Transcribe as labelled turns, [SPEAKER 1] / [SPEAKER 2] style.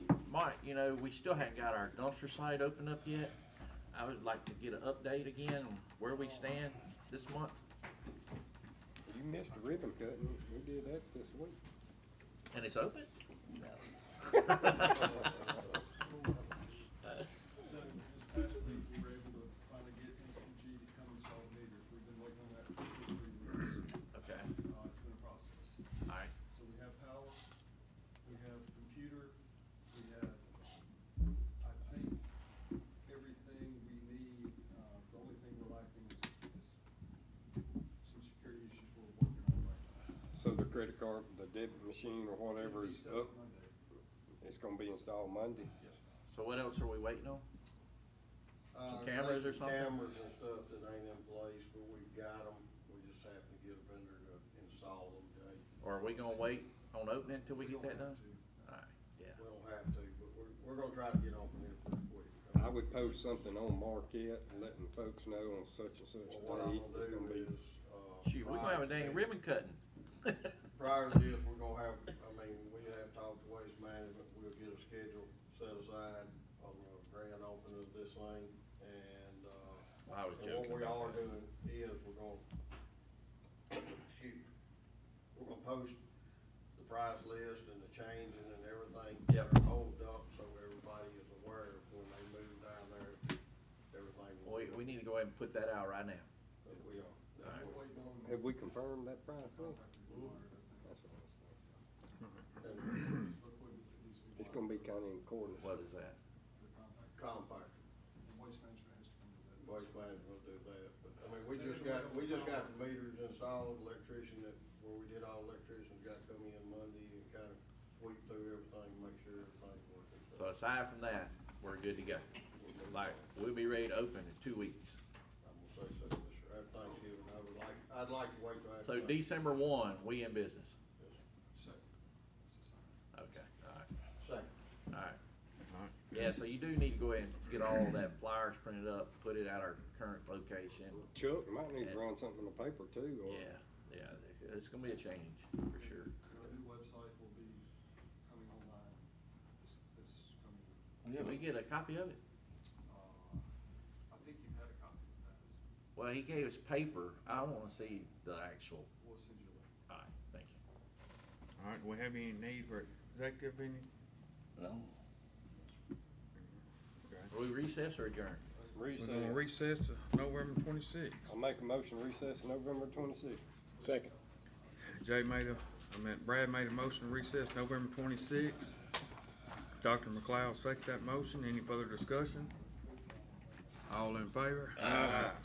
[SPEAKER 1] you know, we still haven't got our dumpster site opened up yet. I would like to get an update again on where we stand this month.
[SPEAKER 2] You missed a ribbon cutting. We did that this week.
[SPEAKER 1] And it's open?
[SPEAKER 3] So this past week, we were able to finally get MPG to come install the meters. We've been waiting on that for two, three weeks.
[SPEAKER 1] Okay,
[SPEAKER 3] Uh, it's been a process.
[SPEAKER 1] all right.
[SPEAKER 3] So we have power, we have computer, we have, I think, everything we need. Uh, the only thing we're lacking is, is some security issues we're working on right now.
[SPEAKER 2] So the credit card, the debit machine or whatever is
[SPEAKER 3] It'll
[SPEAKER 2] up,
[SPEAKER 3] be set Monday.
[SPEAKER 2] it's gonna be installed Monday.
[SPEAKER 3] Yes, sir.
[SPEAKER 1] So what else are we waiting on? Some
[SPEAKER 4] Uh,
[SPEAKER 1] cameras or
[SPEAKER 4] there's
[SPEAKER 1] something?
[SPEAKER 4] Cameras and stuff that ain't in place, but we've got them, we just have to get a vendor to install them, Jay.
[SPEAKER 1] Or are we gonna wait on opening until we
[SPEAKER 3] We
[SPEAKER 1] get
[SPEAKER 3] don't
[SPEAKER 1] that done?
[SPEAKER 3] have
[SPEAKER 1] All right, yeah.
[SPEAKER 4] We don't have to, but we're, we're gonna try to get on from here pretty quick.
[SPEAKER 2] I would post something on Marquette, letting folks know on such and such
[SPEAKER 4] Well, what
[SPEAKER 2] day,
[SPEAKER 4] I'm gonna
[SPEAKER 2] it's gonna
[SPEAKER 4] do
[SPEAKER 2] be.
[SPEAKER 4] is, uh.
[SPEAKER 1] Shoot, we're gonna have a
[SPEAKER 4] prior to
[SPEAKER 1] dang
[SPEAKER 4] that-
[SPEAKER 1] ribbon cutting.
[SPEAKER 4] Prior to this, we're gonna have, I mean, we have talked to Waste Management, we'll get a schedule set aside on the grand opening of this thing, and, uh.
[SPEAKER 1] I was
[SPEAKER 4] so
[SPEAKER 1] joking
[SPEAKER 4] What we
[SPEAKER 1] about
[SPEAKER 4] are
[SPEAKER 1] that.
[SPEAKER 4] doing is, we're gonna, shoot, we're gonna post the price list and the changing and everything.
[SPEAKER 1] Yep.
[SPEAKER 4] Hold up, so everybody is aware of when they move down there, everything. will
[SPEAKER 1] We,
[SPEAKER 4] be-
[SPEAKER 1] we need to go ahead and put that out right now.
[SPEAKER 4] that We are.
[SPEAKER 1] All
[SPEAKER 3] We're waiting on
[SPEAKER 2] Have we confirmed that price? Well,
[SPEAKER 3] contractor to wire it, I
[SPEAKER 2] That's what I was
[SPEAKER 4] And
[SPEAKER 3] think. Equipment that needs to
[SPEAKER 2] thinking. It's gonna be
[SPEAKER 3] wired.
[SPEAKER 2] kinda in accordance.
[SPEAKER 1] What is that?
[SPEAKER 3] The compactor.
[SPEAKER 4] Compactor.
[SPEAKER 3] And Waste management has to come to that.
[SPEAKER 4] Waste management will do that, but, I mean, we just got, we just got the meters installed, electrician that, where we did all electricians got to come in Monday and kind of sweep through everything, make sure everything's working.
[SPEAKER 1] So aside from that, we're good to go. Like, we'll be ready to open in two weeks.
[SPEAKER 4] I'm gonna say so, this year, after Thanksgiving, I would like, I'd like to wait till after.
[SPEAKER 1] So December one, we in business.
[SPEAKER 3] Second. That's the second.
[SPEAKER 1] Okay, all right,
[SPEAKER 4] Second,
[SPEAKER 1] all right. Yeah, so you do need to go ahead and get all that flyers printed up, put it at our current location.
[SPEAKER 2] Chuck might need to run something in the paper too, or.
[SPEAKER 1] Yeah, yeah, it's gonna be a change, for sure.
[SPEAKER 3] Our new website will be coming online this, this coming week.
[SPEAKER 1] Can we get a copy of it?
[SPEAKER 3] Uh, I think you've had a copy of that.
[SPEAKER 1] Well, he gave us paper. I wanna see the actual,
[SPEAKER 3] We'll send you a
[SPEAKER 1] all
[SPEAKER 3] link.
[SPEAKER 1] right, thank you.
[SPEAKER 5] All right, do we have any need for executive any?
[SPEAKER 1] No.
[SPEAKER 5] Okay.
[SPEAKER 1] Are we recess or adjourn?
[SPEAKER 5] We're gonna
[SPEAKER 2] Recess.
[SPEAKER 5] recess to November twenty-sixth.
[SPEAKER 2] I'll make a motion to recess November twenty-sixth. Second.
[SPEAKER 5] Jay made a, I meant Brad made a motion to recess November twenty-sixth. Dr. McLeod seconded that motion. Any further discussion? All in favor? Aye.